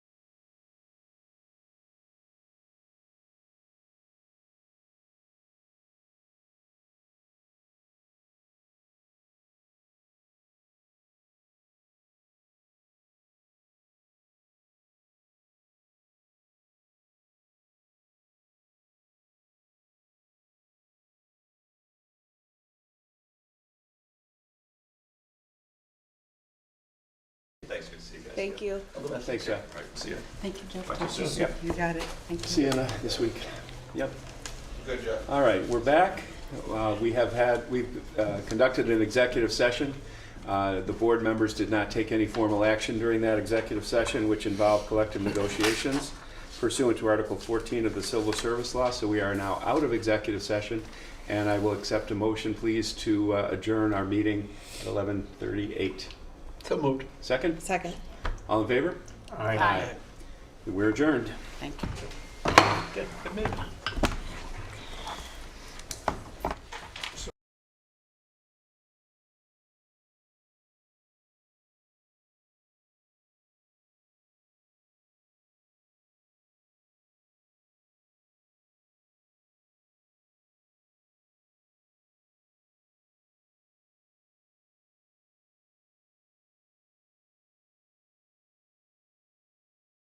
guys. Thank you. Thanks, Jeff. All right, see ya. Thank you, Jeff. Talk to you Talk to soon. you. You got it. Thank you. See you in, uh, this week. Yep. Good, Jeff. All right, we're back. Uh, We have had, we've uh, conducted an executive session. Uh, The board members did not take any formal action during that executive session, which involved collective negotiations pursuant to Article 14 of the Civil Service Law, so we are now out of executive session, and I will accept a motion, please, to uh, adjourn our meeting at 11:38. So moved. Second? Second. All in favor? Bye. We're adjourned. Thank you. Good, good meeting.